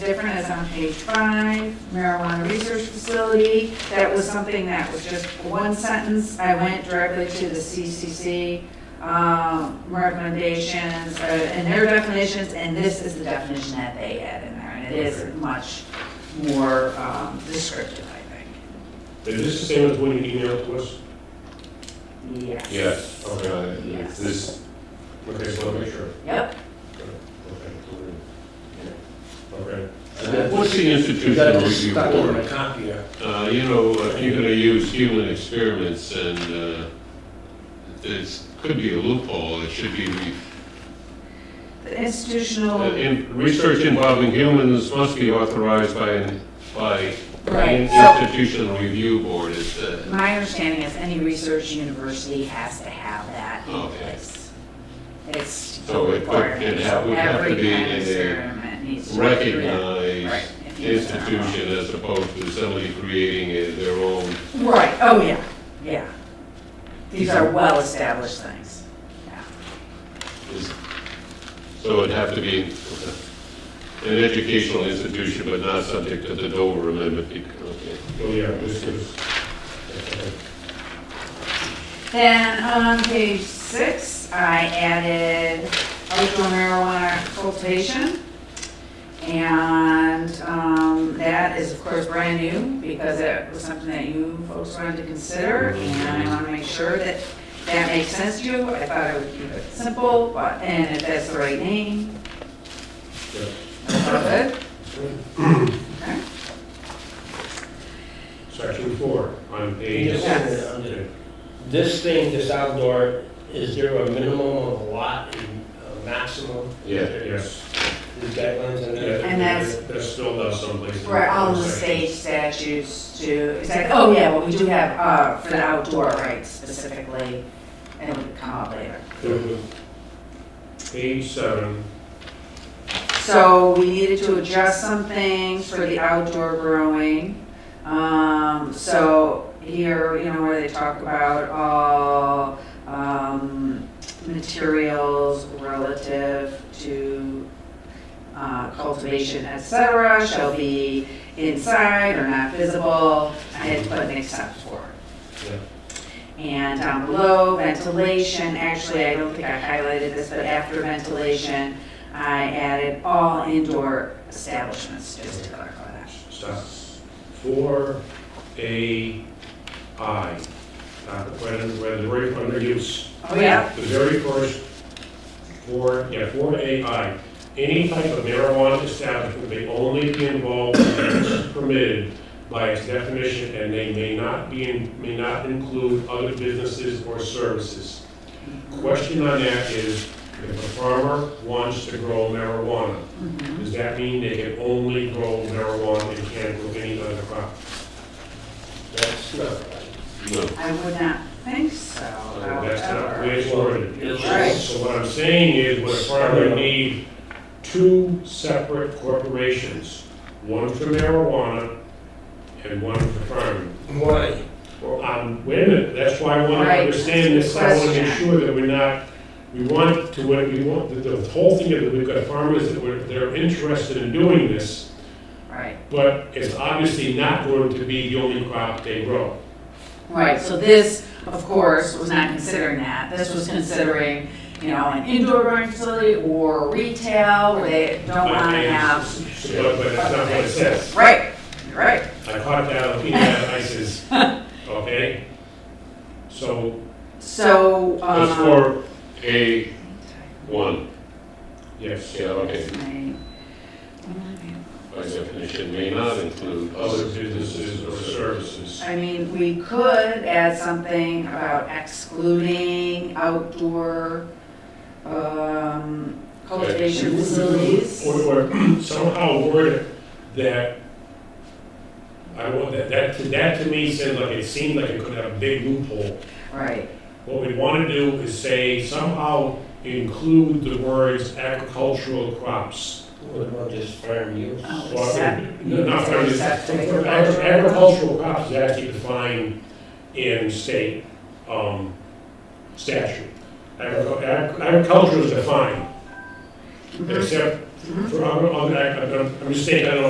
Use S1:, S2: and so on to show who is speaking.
S1: different is on page five, marijuana research facility. That was something that was just one sentence. I went directly to the CCC um, recommendations uh, and their definitions, and this is the definition that they had in there. And it is much more um, descriptive, I think.
S2: Is this the same as when you emailed to us?
S1: Yes.
S2: Yes. Okay,
S1: Yes.
S2: it's this, okay, so I'll make sure.
S1: Yep.
S2: Okay, cool. Okay.
S3: What's the institutional
S4: Got it
S3: review
S4: stuck in my
S3: board?
S4: copier.
S3: Uh, you know, if you're gonna use human experiments and, uh, there's, could be a loophole, it should be, re-
S1: The
S3: uh,
S1: institutional,
S3: in, research involving humans must be authorized by, an- by
S1: Right,
S3: an
S1: so-
S3: institutional review board, is, uh,
S1: my understanding is any research university has to have that in
S3: Okay.
S1: place. It's a
S3: So it could- it ha- would have to
S1: Every
S3: be
S1: kind of
S3: in a
S1: experiment needs to. go through that. Right,
S3: recognized
S1: if you use that wrong.
S3: institution as opposed to somebody creating a- their own
S1: Right, oh, yeah, yeah. These are well-established things.
S3: is, so it'd have to be an educational institution, but not subject to the Dover Amendment, bec- okay.
S2: Oh, yeah, this is. okay.
S1: Then on page six, I added outdoor marijuana cultivation. And um, that is, of course, brand new because it was something that you folks wanted to consider. And I want to make sure that that makes sense to you. I thought I would keep it simple, but, and if that's the right name.
S2: Yeah.
S1: that's all good.
S2: Section four, on page.
S4: Yes. This thing, this outdoor, is there a minimum of a lot and a maximum?
S3: Yeah.
S2: Yes.
S4: There's guidelines on that?
S1: And that's-
S2: That's still not someplace. in
S1: For all of the
S2: section.
S1: state statutes to, exactly, oh yeah, well, we do have, uh, for the outdoor rights specifically, and it would come up later.
S2: Page seven,
S1: So we needed to adjust some things for the outdoor growing. Um, so here, you know, where they talk about all, um, materials relative to, uh, cultivation, et cetera, shall be inside or not visible. I had to put an except for. And down below, ventilation, actually, I don't think I highlighted this, but after ventilation, I added all indoor establishments, just to clarify that.
S2: stop. Four, A, I. Uh, When, when the rate under use.
S1: Oh, yeah?
S2: The very first, four, yeah, four AI, any type of marijuana establishment may only be involved in acts permitted by its definition, and they may not be, in- may not include other businesses or services. Question on that is, if a farmer wants to grow marijuana,
S1: Mhm.
S2: does that mean they can only grow marijuana and can't grow any other crop?
S4: That's not right.
S3: No.
S1: I would not think so,
S2: That's not the
S1: however.
S2: way it's worded.
S1: Right.
S2: So what I'm saying is, would a farmer need two separate corporations? One for marijuana and one for farming?
S4: Why?
S2: Well, um, wait a minute, that's why I want to
S1: Right.
S2: understand this, I want to make
S1: Question.
S2: sure that we're not, we want to, what we want, the- the whole thing, that we've got farmers that were, they're interested in doing this,
S1: Right,
S2: but it's obviously not going to be the only crop they grow.
S1: right, so this, of course, was not considering that. This was considering, you know, an indoor growing facility or retail where they don't want to
S2: And-
S1: have.
S2: But, but that's not what it says.
S1: Right, right.
S2: I caught that on Peanut Isis, okay? So,
S1: So,
S3: That's
S1: um.
S3: for A one,
S2: yes,
S3: yeah, okay,
S1: my-
S3: by definition, may not include
S2: other businesses or services.
S1: I mean, we could add something about excluding outdoor um, cultivation facilities.
S2: Or, or somehow word it that, I want, that, that, that to me said like, it seemed like it could have a big loophole.
S1: Right,
S2: What we want to do is say somehow include the words agricultural crops.
S4: What about just farm use?
S1: Oh,
S2: Well,
S1: except-
S2: no, Not, I mean,
S1: Except
S2: agri- agricultural crops is actually defined in state, um, statute. Agricu- ag- Agriculture is defined,
S1: Mhm.
S2: except For- I'm, I'm, I'm I'm just saying, I don't know